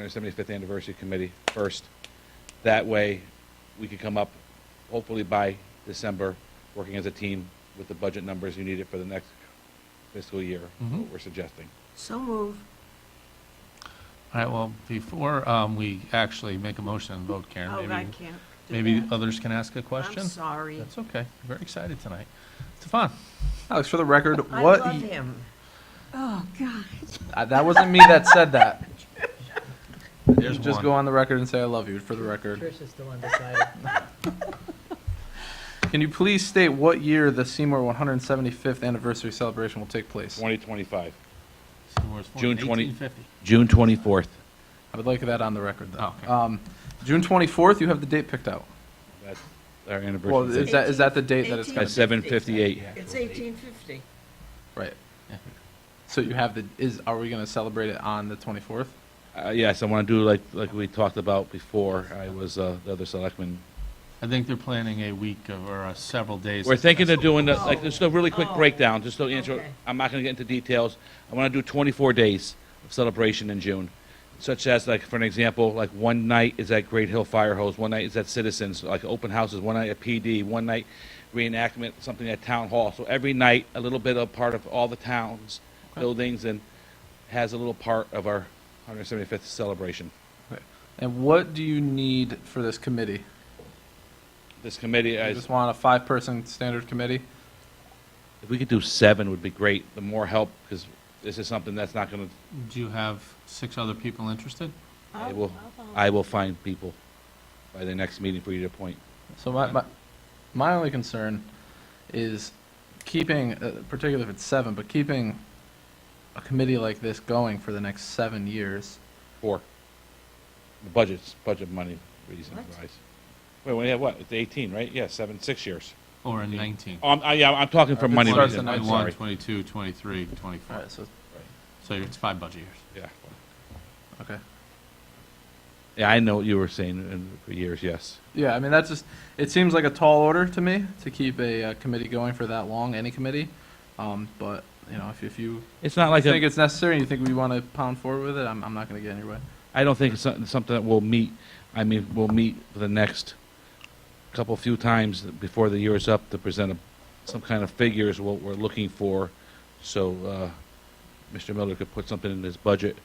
175th Anniversary Committee first. That way, we could come up, hopefully by December, working as a team with the budget numbers you needed for the next fiscal year, Mm-hmm. what we're suggesting. So move. All right, well, before um, we actually make a motion and vote, Karen, Oh, I maybe, can't do maybe that. others can ask a question? I'm sorry. That's okay, very excited tonight. Stefan, Alex, for the record, I what? love him. Uh, that wasn't me that said that. there's Just go one. on the record and say I love you for the record. Trish is still undecided. Can you please state what year the Seymour 175th anniversary celebration will take place? 2025, Seymour's Ford, June 20 1850. June 24th. I would like that on the record, though. Oh, Okay. Um, June 24th, you have the date picked out. That's our Well, anniversary. is date. that, is that the date that it's At going to 7:58. It's 1850. be? Right. So you have the, is, are we going to celebrate it on the 24th? Uh, Yes, I want to do like, like we talked about before, I was uh, the other selectman. I think they're planning a week of- or uh, several days. We're of thinking of festival. doing, the- like, just a really quick Oh. breakdown, just to answer, Okay. I'm not going to get into details. I want to do 24 days of celebration in June, such as, like, for an example, like, one night is at Great Hill Fire Hose, one night is at Citizens, like, open houses, one night at PD, one night reenactment, something at Town Hall. So every night, a little bit of part of all the towns, buildings, and has a little part of our 175th celebration. And what do you need for this committee? This committee, You I just want a five-person standard committee? If we could do seven, would be great. The more help, because this is something that's not going to, Do you have six other people interested? I I'll- will, I'll- I will find people by the next meeting for you to appoint. So my, my, my only concern is keeping, uh, particularly if it's seven, but keeping a committee like this going for the next seven years. Four. The budgets, budget money reasons What? wise. Wait, we have what? It's 18, right? Yeah, seven, six years. Or in 19? Um, I, yeah, I'm talking for It money starts reasons. at I'm 21, sorry. 22, 23, 24. All right, so, So it's five budget years. Yeah. okay. Yeah, I know what you were saying in- for years, yes. Yeah, I mean, that's just, it seems like a tall order to me to keep a, uh committee going for that long, any committee. Um, but, you know, if, if you It's not like, think a- it's necessary and you think we want to pound forward with it, I'm, I'm not going to get in your way. I don't think it's something something that we'll meet, I mean, we'll meet for the next couple, few times before the year is up to present a- some kind of figures, what we're looking for, so uh, Mr. Miller could put something in his budget,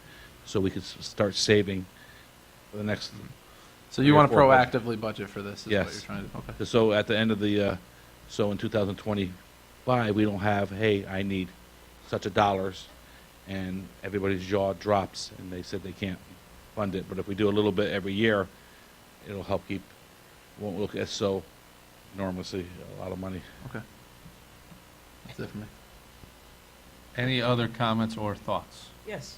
so we could s- start saving for the next, So Three you or want to four budget. proactively budget for this, is what Yes. you're trying to, okay. so at the end of the, uh, so in 2025, we don't have, hey, I need such a dollars, and everybody's jaw drops, and they said they can't fund it. But if we do a little bit every year, it'll help keep, won't look as so enormously, a lot of money. Okay. That's it for me. Any other comments or thoughts? Yes,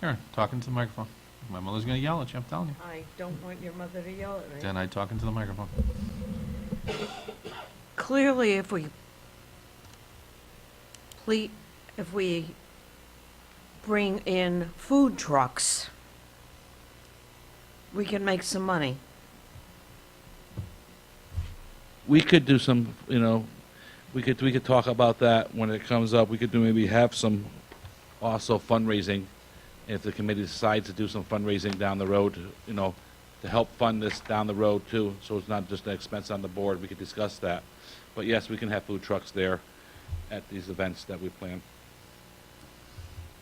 Karen, talking to the microphone. My mother's going to yell at you, I'm telling you. I don't want your mother to yell at me. Then I talk into the microphone. clearly, if we ple, if we bring in food trucks, we can make some money. we could do some, you know, we could, we could talk about that when it comes up. We could do maybe have some also fundraising. If the committee decides to do some fundraising down the road, you know, to help fund this down the road too, so it's not just an expense on the board, we could discuss that. But yes, we can have food trucks there at these events that we plan.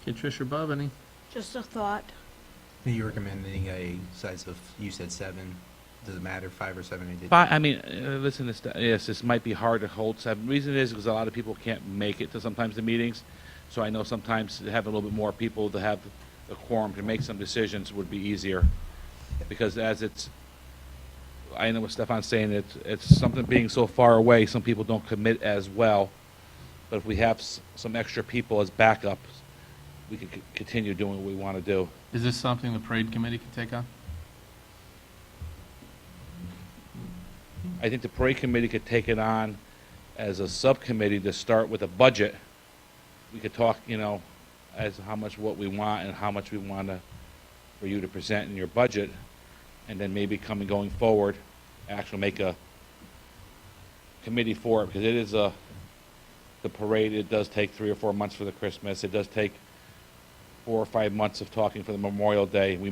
Okay, Trish or Bob, any? Just a thought. You're recommending a size of, you said seven, doesn't matter, five or seven, it did. But, I mean, uh, listen, this, yes, this might be hard to hold. The reason is because a lot of people can't make it to sometimes the meetings. So I know sometimes to have a little bit more people to have the quorum to make some decisions would be easier. Because as it's, I know what Stefan's saying, it's, it's something being so far away, some people don't commit as well. But if we have s- some extra people as backups, we could c- continue doing what we want to do. Is this something the parade committee can take on? I think the parade committee could take it on as a subcommittee to start with a budget. We could talk, you know, as how much what we want and how much we want to, for you to present in your budget. And then maybe coming, going forward, actually make a committee for it, because it is a, the parade, it does take three or four months for the Christmas. It does take four or five months of talking for the Memorial Day. We